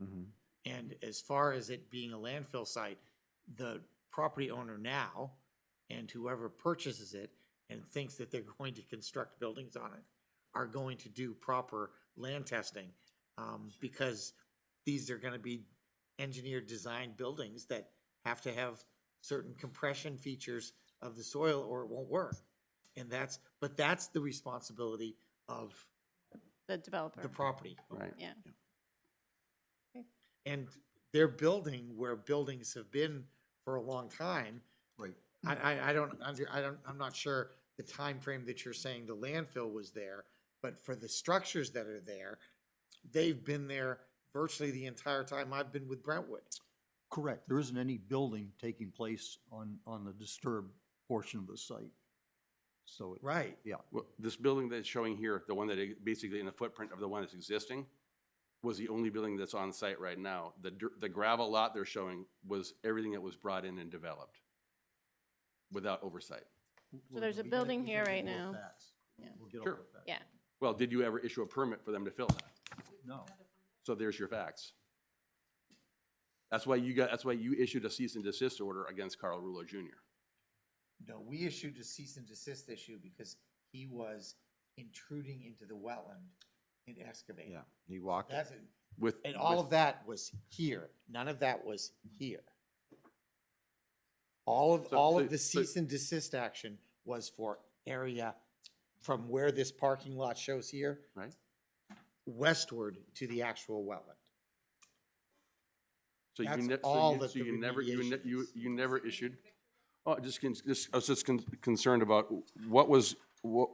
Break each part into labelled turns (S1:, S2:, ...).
S1: Mhm.
S2: And as far as it being a landfill site, the property owner now and whoever purchases it and thinks that they're going to construct buildings on it are going to do proper land testing. Um, because these are gonna be engineered designed buildings that have to have certain compression features of the soil or it won't work. And that's, but that's the responsibility of
S3: the developer.
S2: the property.
S1: Right.
S3: Yeah.
S2: And they're building where buildings have been for a long time.
S4: Right.
S2: I, I, I don't, under- I don't, I'm not sure the time frame that you're saying the landfill was there, but for the structures that are there, they've been there virtually the entire time I've been with Brentwood.
S4: Correct. There isn't any building taking place on, on the disturbed portion of the site. So, it-
S2: Right.
S1: Well,
S5: This building that's showing here, the one that i- basically in the footprint of the one that's existing, was the only building that's on site right now. The, dir- the gravel lot they're showing was everything that was brought in and developed without oversight.
S4: we'll-
S3: there's a
S4: we can-
S3: building
S4: we can
S3: here
S4: get
S3: right
S4: all the
S3: now.
S4: facts.
S3: Yeah.
S4: We'll get all
S5: Sure.
S4: the facts.
S3: Yeah.
S5: Well, did you ever issue a permit for them to fill that?
S4: No,
S5: So there's your facts. That's why you got, that's why you issued a cease and desist order against Carl Rulo Jr.
S2: No, we issued a cease and desist issue because he was intruding into the wetland and excavating.
S1: Yeah, he walked. it.
S2: That's,
S5: with.
S2: and all
S5: with-
S2: of that was here. None of that was here. All of,
S5: So-
S2: all
S5: so-
S2: of the
S5: so-
S2: cease and desist action was for area from where this parking lot shows here.
S5: Right.
S2: Westward to the actual wetland.
S5: So you,
S2: That's
S5: ne- so
S2: all
S5: you,
S2: that
S5: so
S2: the
S5: you never, you, ne-
S2: remediation
S5: you,
S2: is.
S5: you never issued? Oh, just, con- just, I was just con- concerned about what was, what,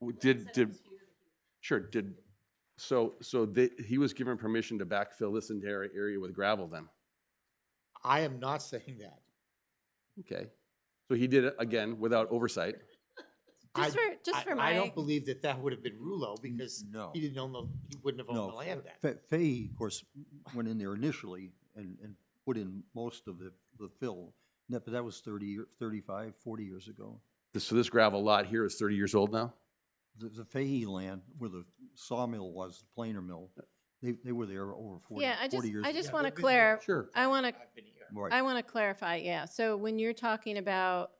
S5: w- did, did, sure, did, so, so they, he was given permission to backfill this entire area with gravel then?
S2: I am not saying that.
S5: Okay. So he did it again without oversight?
S2: I-
S3: Just for, just
S2: I-
S3: for
S2: I
S3: my,
S2: don't believe that that would have been Rulo
S4: N-
S2: because
S4: no.
S2: he didn't own the, he wouldn't have owned the land
S4: no.
S2: then.
S4: Fa- Fahey, of course, went in there initially and, and put in most of the, the fill. And that- But that was 30, or- 35, 40 years ago.
S5: This- So this gravel lot here is thirty years old now?
S4: The, the Fahey land where the sawmill was, the planer mill, they, they were there over 40,
S3: yeah, I
S4: 40
S3: just,
S4: years.
S3: I
S4: ago.
S3: just
S2: Yeah,
S3: want to
S2: they've been here.
S3: clear,
S5: Sure.
S3: I want to,
S2: I've been here.
S4: Right.
S3: I want to clarify, yeah. So when you're talking about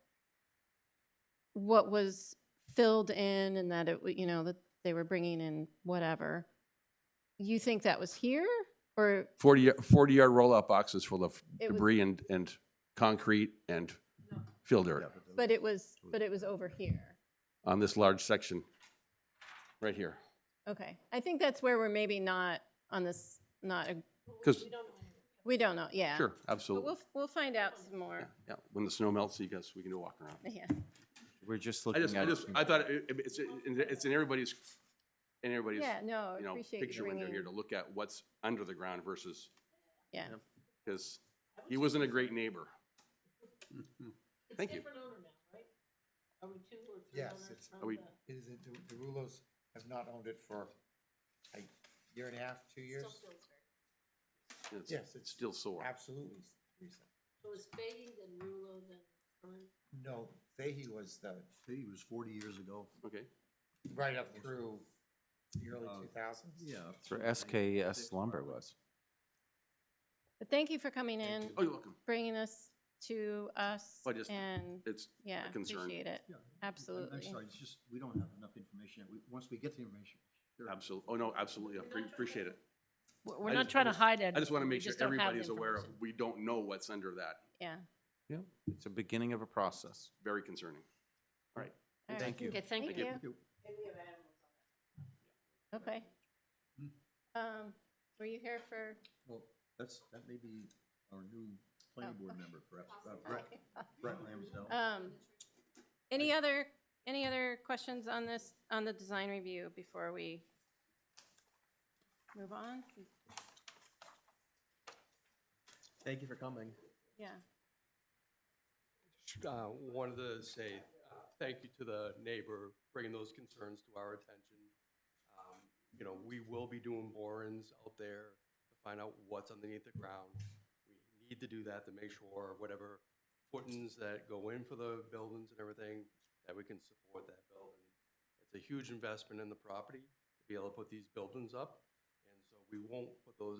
S3: what was filled in and that it, w- you know, that they were bringing in whatever, you think that was here or
S5: Forty, y- forty yard roll-out boxes full of
S3: it was,
S5: debris and, and concrete and fill dirt
S3: but it was, but it was over here?
S5: on this large section, right here.
S3: Okay, I think that's where we're maybe not on this, not, a-
S5: Because,
S3: we don't know, yeah.
S5: sure,
S3: But
S5: absolutely.
S3: we'll, we'll find out some
S5: Yeah,
S3: more,
S5: yeah, when the snow melts, you guys, we can do a walk around.
S3: yeah.
S1: We're just
S5: I
S1: looking
S5: just, I
S1: at.
S5: just, I thought it- it- it's, it's in everybody's, in everybody's,
S3: Yeah, no,
S5: you know,
S3: appreciate you
S5: picture when they're
S3: bringing.
S5: here to look at what's under the ground versus.
S3: Yeah.
S5: Because he wasn't a great neighbor. Thank you.
S2: Yes, it's,
S6: Oh,
S5: Are we,
S2: it is, the the Rulos have not owned it for a year and a half, two years?
S5: it's-
S2: Yes,
S5: it's
S2: it's
S5: still sore.
S2: absolutely recent.
S6: So it's Fahey, then Rulo, then Curran?
S2: No, Fahey was the,
S4: Fahey was 40 years ago.
S5: Okay,
S2: right up through the early
S4: Uh,
S2: two thousands.
S1: That's where SKS lumber was.
S3: But thank you for coming in,
S5: oh, you're welcome.
S3: bringing this to us,
S5: I just-
S3: and,
S5: It's,
S3: yeah,
S5: concern.
S3: appreciate it,
S4: Yeah, I'm- I'm
S3: absolutely.
S4: sorry, it's just, we don't have enough information. We- Once we get the information. sure.
S5: absolutely, oh, no, absolutely, I pre- appreciate it.
S6: We're we're
S5: I
S6: not
S5: just- I
S6: trying to
S5: just-
S6: hide it.
S5: I just want to
S6: we
S5: make sure
S6: don't have the
S5: everybody's aware of,
S6: information.
S5: we don't know what's under that,
S3: Yeah.
S1: Yeah. It's a beginning of a process.
S5: very concerning.
S3: All right.
S1: Thank you.
S6: Okay, thank
S3: Thank
S6: you.
S3: you.
S4: Thank you.
S3: Okay.
S7: Mm-hmm.
S3: Um, were you here for?
S4: Well, that's, that may be our new
S3: Oh,
S4: planning board
S3: okay.
S4: member, perhaps. Uh, Brett, Brett Ramsdale.
S3: Um, any other, any other questions on this, on the design review before we move on?
S7: Thank you for coming.
S3: Yeah,
S7: Uh, Wanted to say uh, thank you to the neighbor bringing those concerns to our attention. Um, You know, we will be doing borings out there to find out what's underneath the ground. We need to do that to make sure whatever footings that go in for the buildings and everything, that we can support that building. It's a huge investment in the property to be able to put these buildings up, and so we won't put those